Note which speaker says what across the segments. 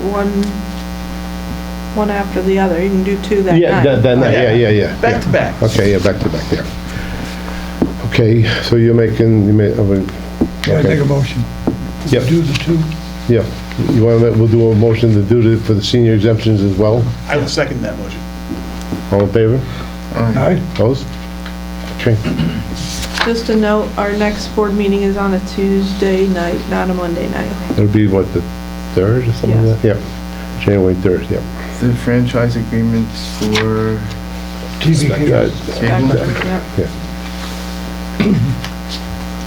Speaker 1: one, one after the other, you can do two that night.
Speaker 2: Yeah, that, that night, yeah, yeah, yeah.
Speaker 3: Back
Speaker 2: yeah.
Speaker 3: to back.
Speaker 2: Okay, yeah, back to back, yeah. Okay, so you're making, you oh, made,
Speaker 4: Can I take a
Speaker 2: okay,
Speaker 4: motion?
Speaker 2: Yep.
Speaker 4: Do the two,
Speaker 2: yeah. You want to, we'll do a motion to do it for the senior exemptions as well?
Speaker 3: I will second that motion.
Speaker 2: All in favor?
Speaker 4: aye?
Speaker 2: Opposed? Okay,
Speaker 1: Just a note, our next board meeting is on a Tuesday night, not a Monday night.
Speaker 2: that'll be what, the third or something like that? Yeah, January third, yeah.
Speaker 5: The franchise agreements for
Speaker 2: Uh,
Speaker 4: TBK,
Speaker 5: cable?
Speaker 1: Yep.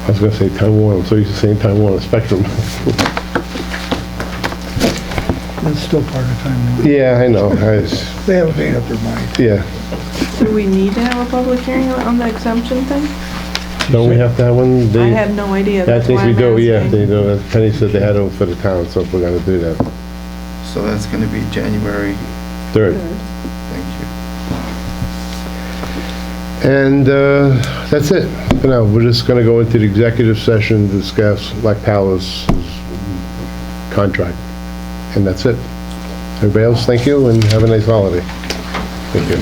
Speaker 2: I was gonna say Time Warner, I'm so used to saying Time Warner Spectrum.
Speaker 4: that's still part of time.
Speaker 2: Yeah, I know, I, just-
Speaker 4: They haven't made up their mind.
Speaker 2: yeah.
Speaker 1: Do we need to have a public hearing on the exemption thing?
Speaker 2: Don't we have to have
Speaker 1: I
Speaker 2: one? They-
Speaker 1: have no idea.
Speaker 2: I
Speaker 1: That's
Speaker 2: think
Speaker 1: why
Speaker 2: we
Speaker 1: I'm
Speaker 2: do, yeah,
Speaker 1: asking.
Speaker 2: they do, as Penny said they had it for the town, so if we're gonna do that,
Speaker 5: So that's gonna be January,
Speaker 2: third.
Speaker 5: thank you.
Speaker 2: And uh, that's it. For now, we're just going to go into the executive session, discuss Black Palace's contract, and that's it. Everybody else, thank you, and have a nice holiday. Thank you.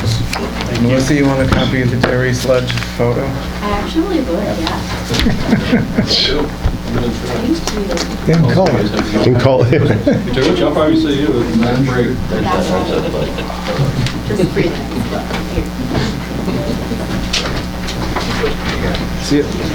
Speaker 5: Melissa, you want a copy of the Terry Sledge photo?
Speaker 6: I actually would, yeah. Thank you.
Speaker 4: In color.
Speaker 2: And call
Speaker 7: Which I'll probably see you at nine break.
Speaker 6: Just breathe.
Speaker 5: See it?